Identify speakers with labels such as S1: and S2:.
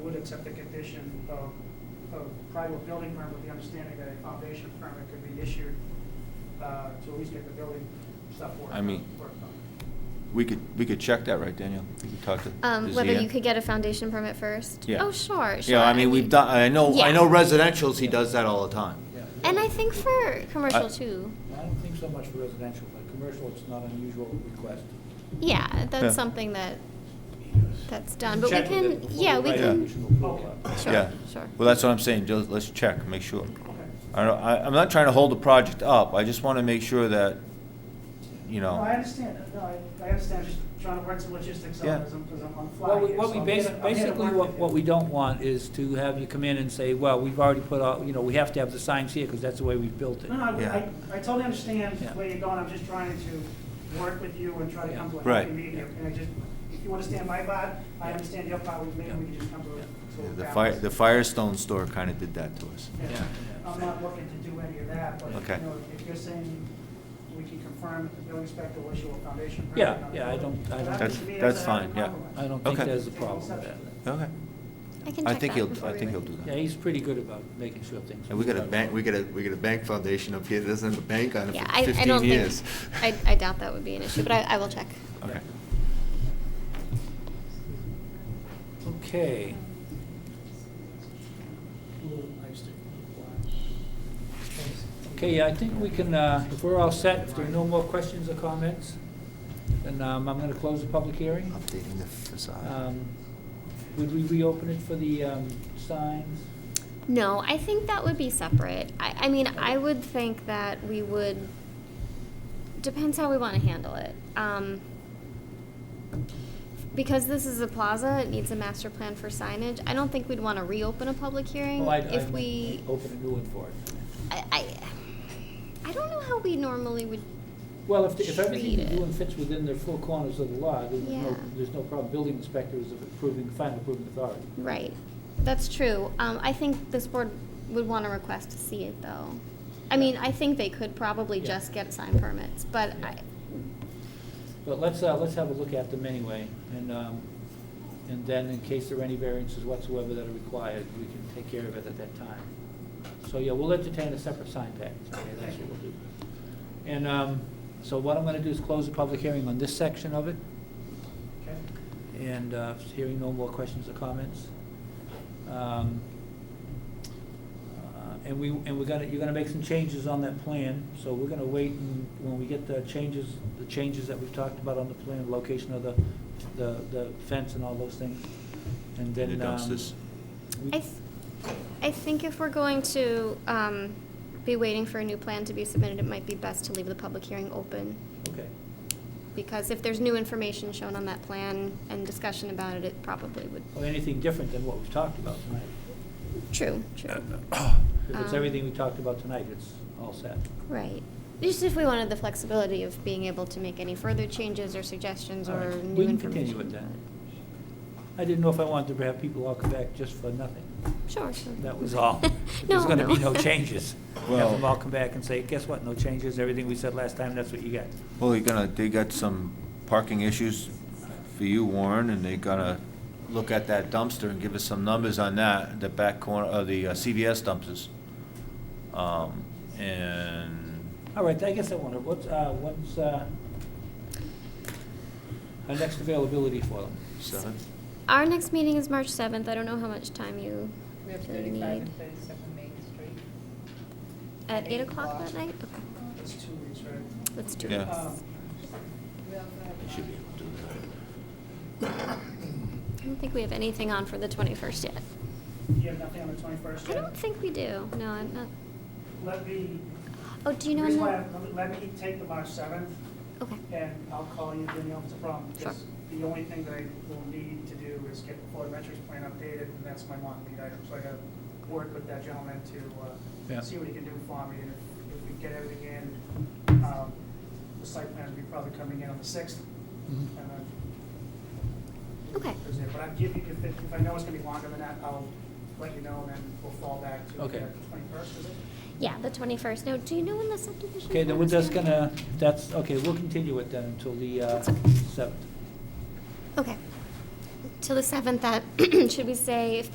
S1: accept the condition of, of private building permit with the understanding that a foundation permit could be issued, uh, to at least get the building stuff worked.
S2: I mean-
S1: worked on.
S2: We could, we could check that, right, Daniel? We could talk to.
S3: Um,
S2: to
S3: whether
S2: Zia.
S3: you could get a foundation permit first?
S2: Yeah.
S3: Oh, sure, sure.
S2: Yeah, I mean, we've done, I know, I
S3: Yeah.
S2: know residential's, he does that all the time.
S3: And I think for commercial
S2: I-
S3: too.
S4: I don't think so much for residential, but commercial, it's not unusual request.
S3: Yeah,
S2: Yeah.
S3: that's something that, that's done, but we
S4: Check with it
S3: can,
S4: before
S3: yeah, we
S4: write
S2: Yeah.
S3: can,
S4: conditional approval up.
S3: sure,
S2: Yeah.
S3: sure.
S2: Well, that's what I'm saying, just, let's check, make sure.
S1: Okay.
S2: I don't, I, I'm not trying to hold the project up, I just wanna make sure that, you
S1: No, I
S2: know,
S1: understand, no, I, I understand, just trying to work some logistics out,
S2: Yeah.
S1: as I'm, as I'm on the fly
S4: What we,
S1: here,
S4: what
S1: so
S4: we
S1: I'm
S4: basically,
S1: gonna- I'm gonna
S4: basically
S1: work
S4: what,
S1: with
S4: what
S1: you.
S4: we don't want is to have you come in and say, well, we've already put all, you know, we have to have the signs here because that's the way we've built it.
S1: No, no, I,
S2: Yeah.
S1: I I totally understand
S4: Yeah.
S1: where you're going, I'm just trying to work with you and try to come to a
S2: Right.
S1: happy medium. And I just, if you understand my part, I understand your part, we- maybe we can just come to a, to a
S2: the fire,
S1: balance.
S2: the Firestone store kinda did that to us.
S1: Yeah.
S4: Yeah.
S1: uh, I'm not looking to do any of that, but,
S2: Okay.
S1: you know, if you're saying we can confirm that the building inspector will issue a foundation permit.
S4: Yeah,
S1: on
S4: yeah, I
S1: the building,
S4: don't- I don't-
S1: that
S2: That's-
S1: to me,
S2: that's
S1: a happy
S2: fine, yeah.
S1: compromise.
S4: I don't think
S2: Okay.
S4: there's a
S1: Take
S4: problem with
S1: exception
S4: that.
S1: to that.
S2: Okay,
S3: I can
S2: I think
S3: check that
S2: he'll,
S3: before
S2: I
S3: we
S2: think he'll
S3: leave.
S2: do
S4: Yeah,
S2: that.
S4: he's pretty good about making sure things.
S2: And we got a bank, we got a, we got a bank foundation up here that doesn't have a bank on it
S3: Yeah,
S2: for
S3: I, I don't
S2: fifteen
S3: think,
S2: years.
S3: I, I doubt that would be an issue, but I, I will check.
S2: Okay.
S4: Okay. Okay, I think we can, uh, if we're all set, if there are no more questions or comments, then um, I'm going to close the public hearing.
S2: Updating the facade.
S4: Um, Would we reopen it for the um, signs?
S3: No, I think that would be separate. I, I mean, I would think that we would, depends how we want to handle it. Um, because this is a plaza, it needs a master plan for signage. I don't think we'd want to reopen a public hearing
S4: Well, Oh, I-
S3: if
S4: I-
S3: we.
S4: Open a new one for it.
S3: I, I, I don't know how we normally would.
S4: Well, if, if everything
S3: Treat
S4: you're
S3: it.
S4: doing fits within the four corners of the law, there's no,
S3: Yeah.
S4: there's no problem. Building inspector is approving, final approving authority.
S3: Right, that's true. Um, I think this board would want to request to see it, though. I mean, I think they could probably
S4: Yeah.
S3: just get sign permits, but I,
S4: But let's, uh, let's have a look at them anyway, and, um, and then in case there are any variances whatsoever that are required, we can take care of it at that time. So, yeah, we'll entertain a separate sign package, okay, that's what we'll do. And, um, so what I'm gonna do is close the public hearing on this section of it,
S1: Okay.
S4: and, uh, hearing no more questions or comments. Um, uh, And we, and we're gonna, you're gonna make some changes on that plan, so we're gonna wait and, when we get the changes, the changes that we've talked about on the plan, location of the, the, the fence and all those things, and then,
S2: The
S4: um.
S2: dumpsters.
S4: we-
S3: I, th- I think if we're going to um, be waiting for a new plan to be submitted, it might be best to leave the public hearing open.
S4: Okay,
S3: Because if there's new information shown on that plan and discussion about it, it probably would.
S4: well, anything different than what we've talked about tonight.
S3: True, true.
S4: If it's
S3: Um.
S4: everything we talked about tonight, it's all set.
S3: Right. Just if we wanted the flexibility of being able to make any further changes or suggestions
S4: All
S3: or
S4: right,
S3: new
S4: we can
S3: information.
S4: continue with I didn't know if I wanted to have people all come back just for nothing.
S3: Sure, sure.
S4: That was all. There's
S3: No,
S4: gonna be
S3: no.
S4: no changes. Have
S2: Well-
S4: them all come back and say, guess what, no changes, everything we said last time, that's what you got.
S2: Well, you're gonna, they got some parking issues for you, Warren, and they're gonna look at that dumpster and give us some numbers on that, the back corner, uh, the uh, CVS dumpsters. Um, and,
S4: All right, I guess I wonder, what's, uh, what's, uh, our next availability for them?
S2: seven,
S3: Our next meeting is March 7th. I don't know how much time you
S5: We have
S3: really need.
S5: thirty-five and thirty-seven Main Street.
S3: At
S5: Eight
S3: 8 o'clock
S1: o'clock.
S3: that night? Okay,
S1: That's two weeks, right?
S3: Let's do it.
S2: yeah,
S1: Um,
S5: We also
S2: they
S5: have uh,
S2: should be
S5: one,
S2: able to do
S3: I don't think we have anything on for the 21st yet.
S1: You have nothing on the twenty-first?
S3: I don't think we do. No, I'm not.
S1: Let me,
S3: Oh, do
S1: the
S3: you know?
S1: reason
S3: when
S1: why,
S3: the-
S1: I'm- let me take the March seventh,
S3: Okay,
S1: and I'll call you, Danielle, if it's a problem.
S3: Sure.
S1: Because the only thing that I will need to do is get the photometrics plan updated, and that's my long lead item. So I gotta work with that gentleman to
S4: Yeah.
S1: uh, see what he can do for me, and if- if we get everything in, um, the site plan will be probably coming in on the sixth, and
S4: Mm-hmm.
S1: then.
S3: Okay.
S1: Is it- But I'll give you, if, it- if I know it's gonna be longer than that, I'll let you know, and then we'll fall back to
S4: Okay.
S1: the twenty-first, is it?
S3: yeah, the 21st. Now, do you know when the subdivision?
S4: Okay, then
S3: plan
S4: we're
S3: is
S4: just
S3: due?
S4: gonna, that's, okay, we'll continue it then until the, uh,
S3: That's okay.
S4: seventh.
S3: Okay. Till the 7th, that, should we say if